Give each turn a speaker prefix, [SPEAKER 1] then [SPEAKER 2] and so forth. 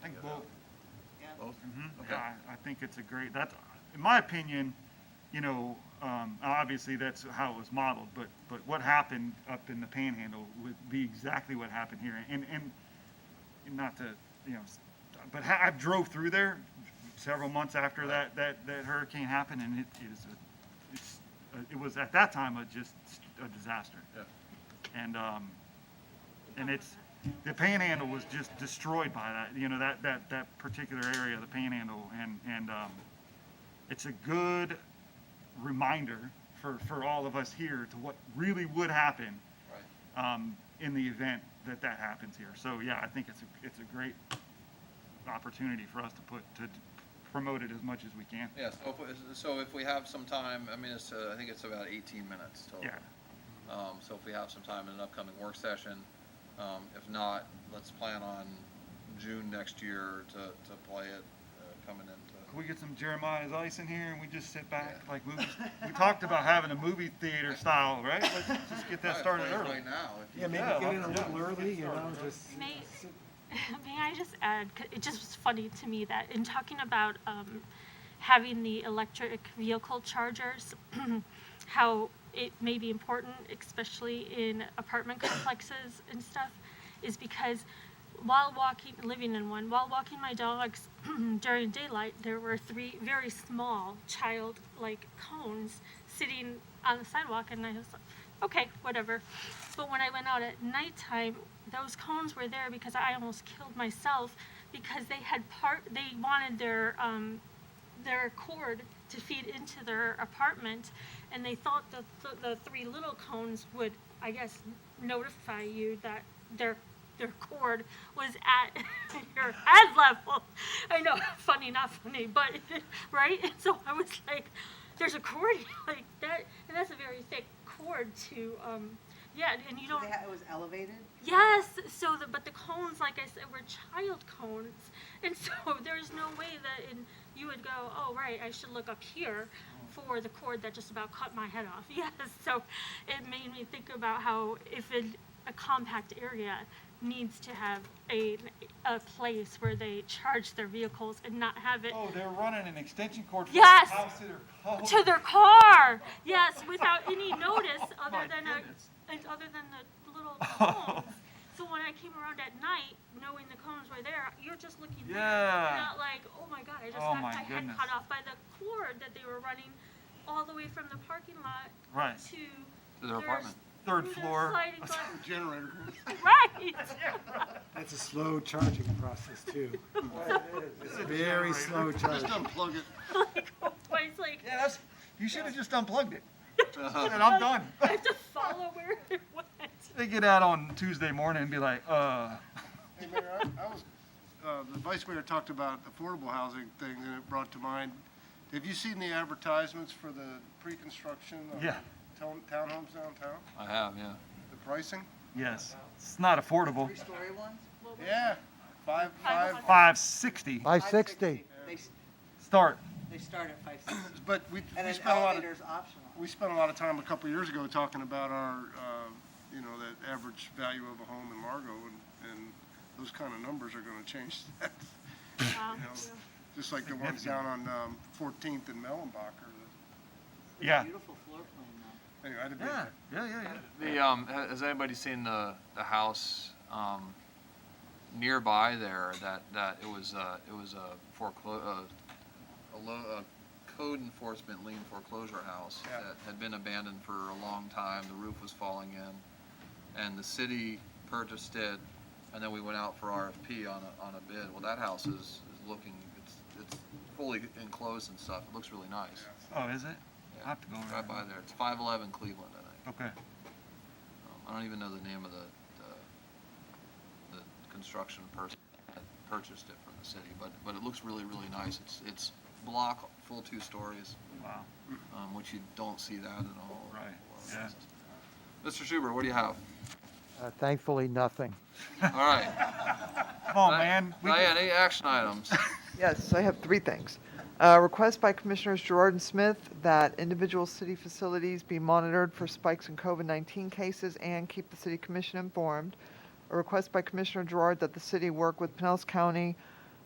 [SPEAKER 1] Mhm.
[SPEAKER 2] Okay.
[SPEAKER 1] I, I think it's a great, that's, in my opinion, you know, um, obviously that's how it was modeled, but, but what happened up in the panhandle would be exactly what happened here. And, and not to, you know, s- but ha- I drove through there several months after that, that, that hurricane happened and it is, a- it's, uh, it was at that time a just a disaster.
[SPEAKER 2] Yeah.
[SPEAKER 1] And, um, and it's, the panhandle was just destroyed by that, you know, that, that, that particular area, of the panhandle, and, and, um, it's a good reminder for, for all of us here to what really would happen,
[SPEAKER 2] Right.
[SPEAKER 1] um, in the event that that happens here. So, yeah, I think it's, a it's a great opportunity for us to put, to promote it as much as we can.
[SPEAKER 2] Yeah, so if, so if we have some time, I mean, it's, uh, I think it's about eighteen minutes total.
[SPEAKER 1] Yeah.
[SPEAKER 2] Um, so if we have some time in an upcoming work session, um, if not, let's plan on June next year to, to play it, uh, coming into.
[SPEAKER 1] Can we get some Jeremiah's Ice in here and we just sit back
[SPEAKER 2] Yeah.
[SPEAKER 1] like we, we talked about having a movie theater style, right? Let's just get that
[SPEAKER 2] Right,
[SPEAKER 1] started
[SPEAKER 2] play it
[SPEAKER 1] early.
[SPEAKER 2] Right now. if you-
[SPEAKER 3] Yeah, maybe
[SPEAKER 1] Yeah,
[SPEAKER 3] get in a
[SPEAKER 1] let's-
[SPEAKER 3] little early, you know, just.
[SPEAKER 4] May, may I just add, 'cause it just was funny to me that in talking about um, having the electric vehicle chargers, how it may be important, especially in apartment complexes and stuff, is because while walking, living in one, while walking my dogs during daylight, there were three very small child-like cones sitting on the sidewalk, and I was like, okay, whatever. But when I went out at nighttime, those cones were there because I almost killed myself because they had part, they wanted their, um, their cord to feed into their apartment, and they thought that th- the three little cones would, I guess, notify you that their their cord was at your head level. I know, funny, not funny, but right. And so I was like, "There's a cord like that, and that's a very thick cord to, um, yeah, and you
[SPEAKER 5] So
[SPEAKER 4] don't."
[SPEAKER 5] they ha- It was elevated?
[SPEAKER 4] Yes. So, the, but the cones, like I said, were child cones, and so there's no way that in, you would go, oh right, I should look up here for the cord that just about cut my head off. Yes. So, it made me think about how if a, a compact area needs to have a a place where they charge their vehicles and not have it
[SPEAKER 1] Oh, they're running an extension cord from
[SPEAKER 4] Yes.
[SPEAKER 1] the house to their car.
[SPEAKER 4] to their car. Yes, without any notice
[SPEAKER 1] Oh,
[SPEAKER 4] other
[SPEAKER 1] my
[SPEAKER 4] than a
[SPEAKER 1] goodness.
[SPEAKER 4] and other than the little cones. so when I came around at night, knowing the cones were there, you're just looking there,
[SPEAKER 1] Yeah.
[SPEAKER 4] not like, oh my god, I just
[SPEAKER 1] Oh
[SPEAKER 4] got
[SPEAKER 1] my
[SPEAKER 4] my
[SPEAKER 1] goodness.
[SPEAKER 4] head cut off by the cord that they were running all the way from the parking lot
[SPEAKER 1] Right.
[SPEAKER 4] to
[SPEAKER 2] To their apartment.
[SPEAKER 1] Third
[SPEAKER 4] through their
[SPEAKER 1] floor.
[SPEAKER 4] sliding glass-
[SPEAKER 6] generator.
[SPEAKER 4] right.
[SPEAKER 3] That's a slow charging process too. It's a Very slow
[SPEAKER 6] Just
[SPEAKER 3] charging.
[SPEAKER 6] unplug it.
[SPEAKER 4] like, I was like,
[SPEAKER 1] Yeah, that's, you should have just unplugged it.
[SPEAKER 2] Uh.
[SPEAKER 1] And I'm done.
[SPEAKER 4] I have to follow where it went.
[SPEAKER 1] They get out on Tuesday morning and be like, uh,
[SPEAKER 6] Hey, Mayor, I, I was, uh, the vice mayor talked about affordable housing thing and it brought to mind. Have you seen the advertisements for the pre-construction of
[SPEAKER 1] Yeah.
[SPEAKER 6] town, townhomes downtown?
[SPEAKER 2] I have, yeah.
[SPEAKER 6] The pricing?
[SPEAKER 1] yes, it's not
[SPEAKER 3] Oh.
[SPEAKER 1] affordable.
[SPEAKER 5] Three-story ones?
[SPEAKER 6] Yeah, five, five,
[SPEAKER 4] hundred.
[SPEAKER 1] Five sixty
[SPEAKER 3] Five sixty.
[SPEAKER 5] They, s-
[SPEAKER 1] start.
[SPEAKER 5] they start at five sixty.
[SPEAKER 6] but we,
[SPEAKER 5] And
[SPEAKER 6] we
[SPEAKER 5] an
[SPEAKER 6] spent a lot of,
[SPEAKER 5] elevator's optional.
[SPEAKER 6] we spent a lot of time a couple of years ago talking about our, uh, you know, that average value of a home in Largo and, and those kind of numbers are gonna change that.
[SPEAKER 4] Wow.
[SPEAKER 6] You know, Just like the ones down on, um, Fourteenth and Mellenbacher.
[SPEAKER 1] Yeah.
[SPEAKER 5] Beautiful floor plan though.
[SPEAKER 6] Anyway, I had a big.
[SPEAKER 1] Yeah, yeah, yeah, yeah.
[SPEAKER 2] The, um, ha- has anybody seen the, the house, um, nearby there that, that it was, uh, it was a foreclo- uh, a lo- a code enforcement lien foreclosure house
[SPEAKER 6] Yeah.
[SPEAKER 2] that had been abandoned for a long time, the roof was falling in. And the city purchased it and then we went out for RFP on a, on a bid. Well, that house is, is looking, it's, it's fully enclosed and stuff. It looks really nice.
[SPEAKER 1] Oh, is it?
[SPEAKER 2] Yeah.
[SPEAKER 1] I have to go
[SPEAKER 2] Drive by
[SPEAKER 1] over
[SPEAKER 2] there. It's five eleven Cleveland, I think.
[SPEAKER 1] there. Okay.
[SPEAKER 2] Um, I don't even know the name of the, the, the construction person that purchased it from the city, but, but it looks really, really nice. It's, it's block, full two stories,
[SPEAKER 1] Wow.
[SPEAKER 2] um, which you don't see that at all.
[SPEAKER 1] Right, yeah.
[SPEAKER 2] Mr. Schubert, what do you have?
[SPEAKER 7] Uh, Thankfully, nothing.
[SPEAKER 2] All right.
[SPEAKER 1] Come on, man. We
[SPEAKER 2] Diane, any action items?
[SPEAKER 8] Yes, I have three things. Uh, Request by Commissioners Gerard and Smith that individual city facilities be monitored for spikes in COVID-19 cases and keep the city commission informed. A request by Commissioner Gerard that the city work with Pinellas County